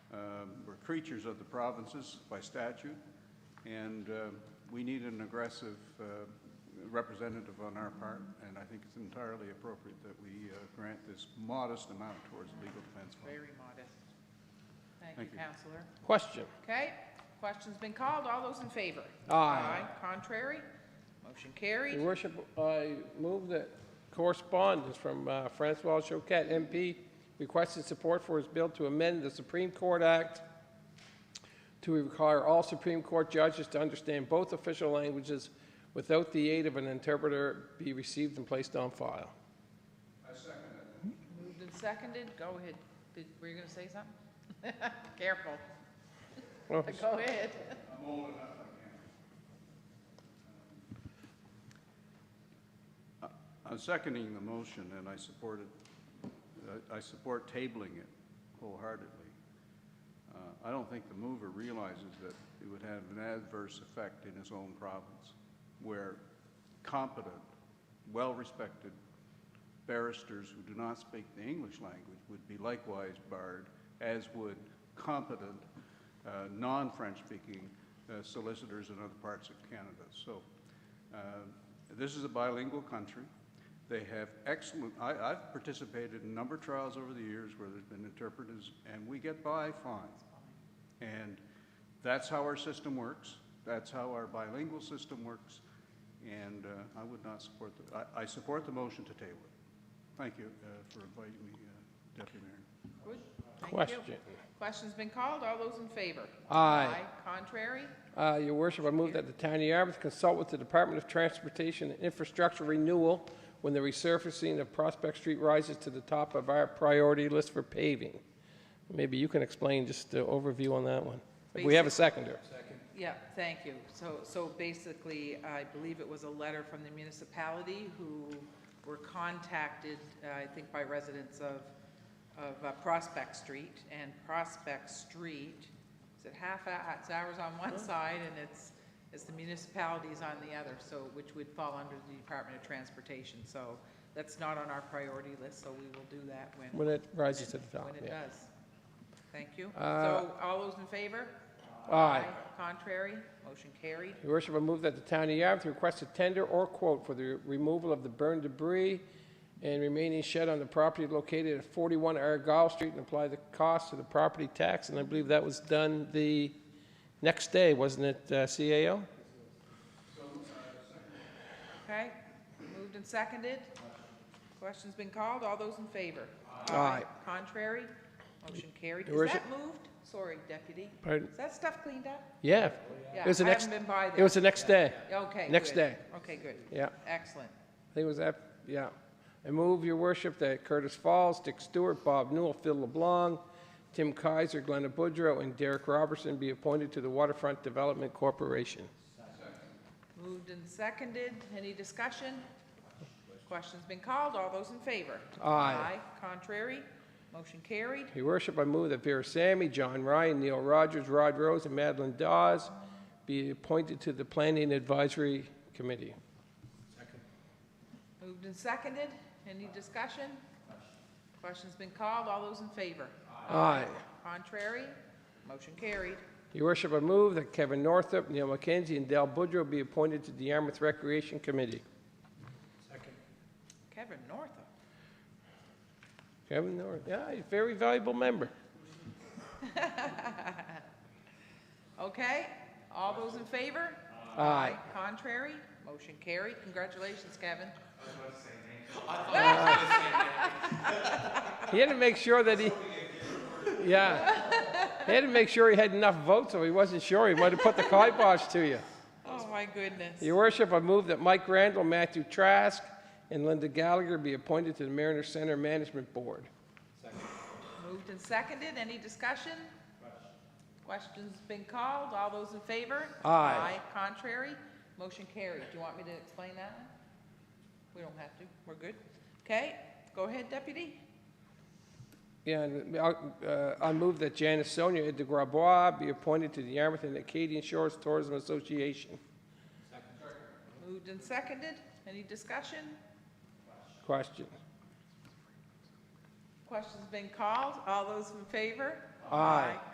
um, we're creatures of the provinces by statute, and uh, we need an aggressive uh, representative on our part, and I think it's entirely appropriate that we uh, grant this modest amount towards the legal defense fund. Very modest. Thank Thank you, you. Counselor. Question. Okay, question's been called. All those in favor? Aye. Contrary? Motion Your carried. worship, I move that correspondence from uh, Francois Choquette, MP, requested support for his bill to amend the Supreme Court Act to require all Supreme Court judges to understand both official languages without the aid of an interpreter be received and placed on file. Moved and seconded. Go ahead. Did, were you gonna say something? Careful. Well, Go ahead. I'm seconding the motion, and I support it, uh, I I support tabling it wholeheartedly. Uh, I don't think the mover realizes that it would have an adverse effect in his own province, where competent, well-respected barristers who do not speak the English language would be likewise barred, as would competent, uh, non-French-speaking uh, solicitors in other parts of Canada. So uh, this is a bilingual country. They have excellent, I, I've participated in a number of trials over the years where there's been interpreters, and we get by fine. And that's how our system works. That's how our bilingual system works. And uh, I would not support the, I, I support the motion to table it. Thank you uh, for inviting me, uh, Deputy Mayor. Good. Thank you. Question. Question's been called. All those in favor? Aye. Contrary? Uh, Your worship, I move that the town of Yarmouth consult with the Department of Transportation and Infrastructure Renewal when the resurfacing of Prospect Street rises to the top of our priority list for paving. Maybe you can explain just the overview on that one. If we have a seconder. Yeah, thank you. So, so basically, I believe it was a letter from the municipality who were contacted, uh, I think by residents of, of uh, Prospect Street, and Prospect Street, is it half, hou- it's ours on one side, and it's, it's the municipalities on the other, so, which would fall under the Department of Transportation, so that's not on our priority list, so we will do that when, When it rises to the top, when it yeah. does. Thank you. Uh, So, all those in favor? Aye. Contrary, motion carried. Your worship, I move that the town of Yarmouth request a tender or quote for the removal of the burned debris and remaining shed on the property located at 41 Argyle Street and apply the cost to the property tax, and I believe that was done the next day, wasn't it, uh, CAO? Okay, moved and seconded. Question's been called, all those in favor? Aye. Contrary, motion carried. Your Is that worship- moved? Sorry, deputy. Pardon? Is that stuff cleaned up? Yeah. Yeah, It was the I next- haven't been by It there. was the next day. Okay, next good. day. Okay, good. Yeah, Excellent. I think it was that, yeah. I move, your worship, that Curtis Falls, Dick Stewart, Bob Newell, Phil LeBlanc, Tim Kaiser, Glenna Boudreau, and Derek Robertson be appointed to the Waterfront Development Corporation. Moved and seconded, any discussion? Question's been called, all those in favor? Aye. Contrary, motion carried. Your Worship, I move that Vera Sammy, John Ryan, Neil Rogers, Rod Rose, and Madeline Dawes be appointed to the Planning Advisory Committee. Moved and seconded, any discussion? Question's been called, all those in favor? Aye. Contrary, motion carried. Your Worship, I move that Kevin Northup, Neil McKenzie, and Dal Boudreau be appointed to the Yarmouth Recreation Committee. Kevin Northup. Kevin North, yeah, he's a very valuable member. Okay, all those in favor? Aye. Contrary, motion carried. Congratulations, Kevin. He had to make sure that he, yeah. He had to make sure he had enough votes, or he wasn't sure. He might have put the kibosh to you. Oh, my goodness. Your worship, I move that Mike Randall, Matthew Trask, and Linda Gallagher be appointed to the Mariner Center Management Board. Moved and seconded, any discussion? Questions been called, all those in favor? Aye. Contrary, motion carried. Do you want me to explain that one? We don't have to, we're good. Okay, go ahead, deputy. Yeah, and I'll, uh, I move that Janice Sonia de Grabois be appointed to the Yarmouth and Acadian Shores Tourism Association. Moved and seconded, any discussion? Question. Questions been called, all those in favor? Aye.